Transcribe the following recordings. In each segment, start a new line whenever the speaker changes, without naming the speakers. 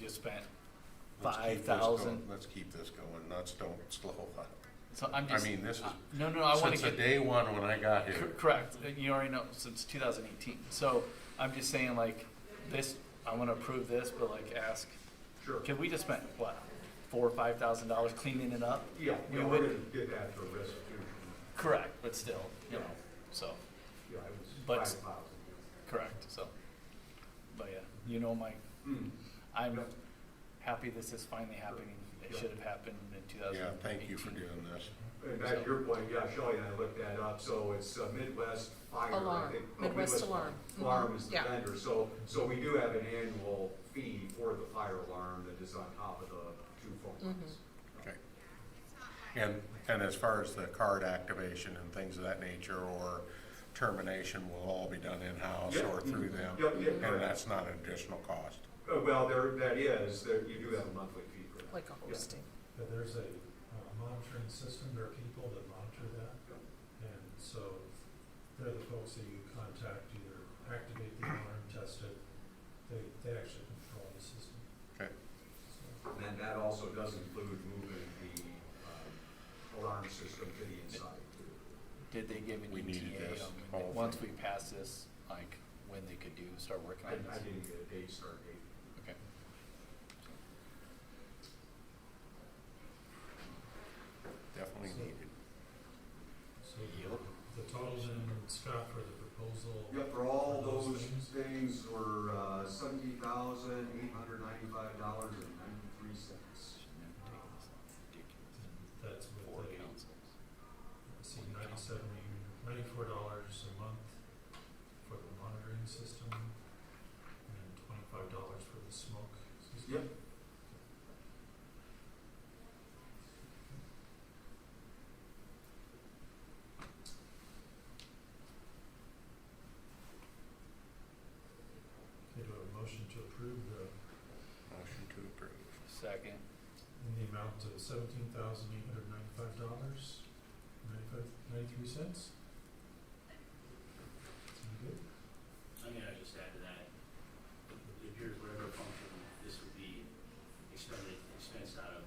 you spent
Let's keep
five
this
thousand.
going. Let's keep this going, let's don't slow up.
So I'm
I
just, uh,
mean, this is,
no, no, I wanna
since the
get,
day one when I got
cor-
here,
correct, Uh, you already know, since two thousand eighteen. So I'm just saying like, this, I wanna approve this, but like ask,
Sure.
can we just spend, what, four or five thousand dollars cleaning it up?
Yeah,
We
yeah, we're
would-
gonna get that for restitution.
Correct, but still, you know, so,
Yeah, it
But-
was five
correct, so. But yeah, you know, my,
thousand.
I'm
Yep.
happy this is finally happening. It
Yep.
should have happened in two thousand
yeah,
eighteen.
thank you for doing this.
And back to your point, yeah, Shelley and I looked that up, so it's uh, Midwest Fire. I
Alarm,
think- oh,
Midwest Alarm. Mm-hmm.
Alarm is the
Yeah.
vendor, so, so we do have an annual fee for the fire alarm that is on top of the two phone lines.
Mm-hmm.
Okay. And, and as far as the card activation and things of that nature, or termination will all be done in-house
Yeah.
or through
Mm-hmm.
them?
Yep, yeah,
And
correct.
that's not an additional cost?
Uh, Well, there, that is, there, you do have a monthly fee for that.
like a hosting.
that there's a uh, monitoring system, there are people that monitor that. And so they're the folks that you contact, either activate the alarm, test it, they, they actually control the system.
Okay.
So,
And then that also does include moving the um, alarm system to the inside.
Did they give an
We needed
ETA
this
on,
whole
when- once we
thing.
pass this, like, when they could do, start working
I
on
I
this?
didn't get a date start date.
Okay.
Definitely
So-
needed.
So the total then, Scott, for the proposal.
Yep, for all those things were uh, seventy thousand, eight hundred ninety-five dollars and ninety-three cents.
and That's
Four
with a,
councils.
let's see, ninety-seven, oh ninety-four dollars a month for the monitoring system, and twenty-five dollars for the smoke system.
Yep.
Okay, do I have a motion to approve the,
Motion to approve.
Second,
in the amount of seventeen thousand eight hundred ninety-five dollars, ninety-five, ninety-three cents? Sound good?
I mean, I just add to that, it appears whatever function this would be expended, expensed out of,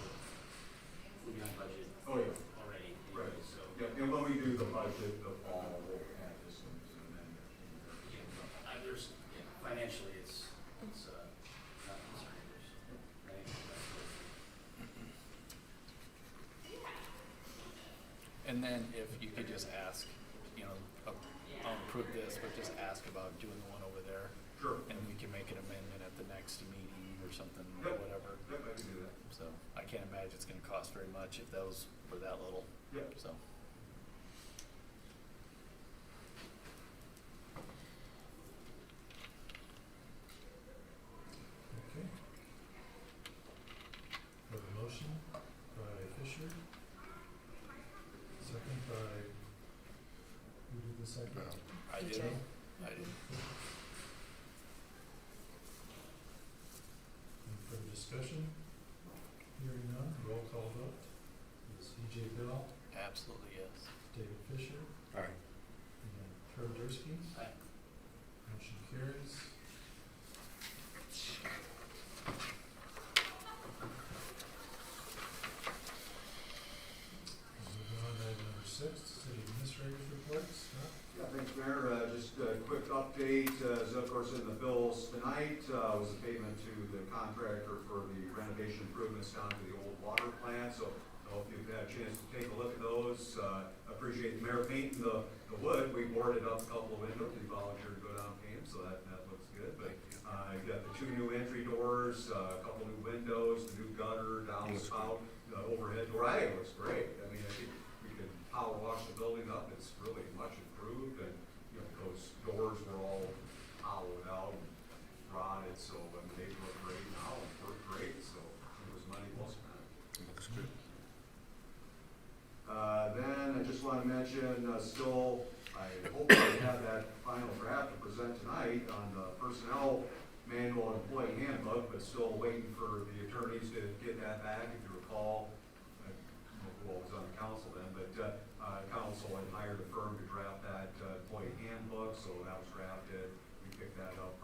would be on budget
Oh, yeah.
already,
Right.
anyway, so
Yep, and when we do the budget, the fall, we'll add this one as an amendment.
uh, there's, yeah, financially, it's, it's, uh, not concerned, there's, right?
and then if you could just ask, you know, uh, I'll approve this, but just ask about doing the one over there,
Sure.
and we can make an amendment at the next meeting or something, or
Yep.
whatever.
Yep, I can do that.
So, I can't imagine it's gonna cost very much if those were that little,
Yep.
so.
Okay. We have a motion by Fisher. Second by, who did the second?
Val.
I
EJ.
did, I did.
Any further discussion? Hearing none, roll call vote. Ms. E.J. Bell,
Absolutely, yes.
David Fisher,
Aye.
and Trevor Dursky.
Aye.
Motion carries. Moving on to item number six, city administrator's reports. Scott?
Yeah, thanks, Mayor. Uh, Just a quick update, uh, is of course in the bills tonight, uh, was a payment to the contractor for the renovation improvements down to the old water plant. So I hope you've had a chance to take a look at those. Uh, Appreciate the mayor painting the, the wood. We boarded up a couple of windows. We volunteered to go down and paint them, so that, that looks good. But uh, you got the two new entry doors, uh, a couple new windows, the new gutter, downspout, the overhead door. I think it looks great. I mean, I think we can power wash the building up, it's really much improved, and, you know, those doors were all hollowed out and rotted, so, I mean, they look great now, and work great, so it was money well spent.
Looks good.
Uh, Then I just want to mention, uh, still, I hope I have that final draft to present tonight on the personnel manual and employee handbook, but still waiting for the attorneys to get that back. If you recall, I don't know who all was on the council then, but uh, uh, council had hired a firm to draft that uh, employee handbook, so that was drafted. We picked that up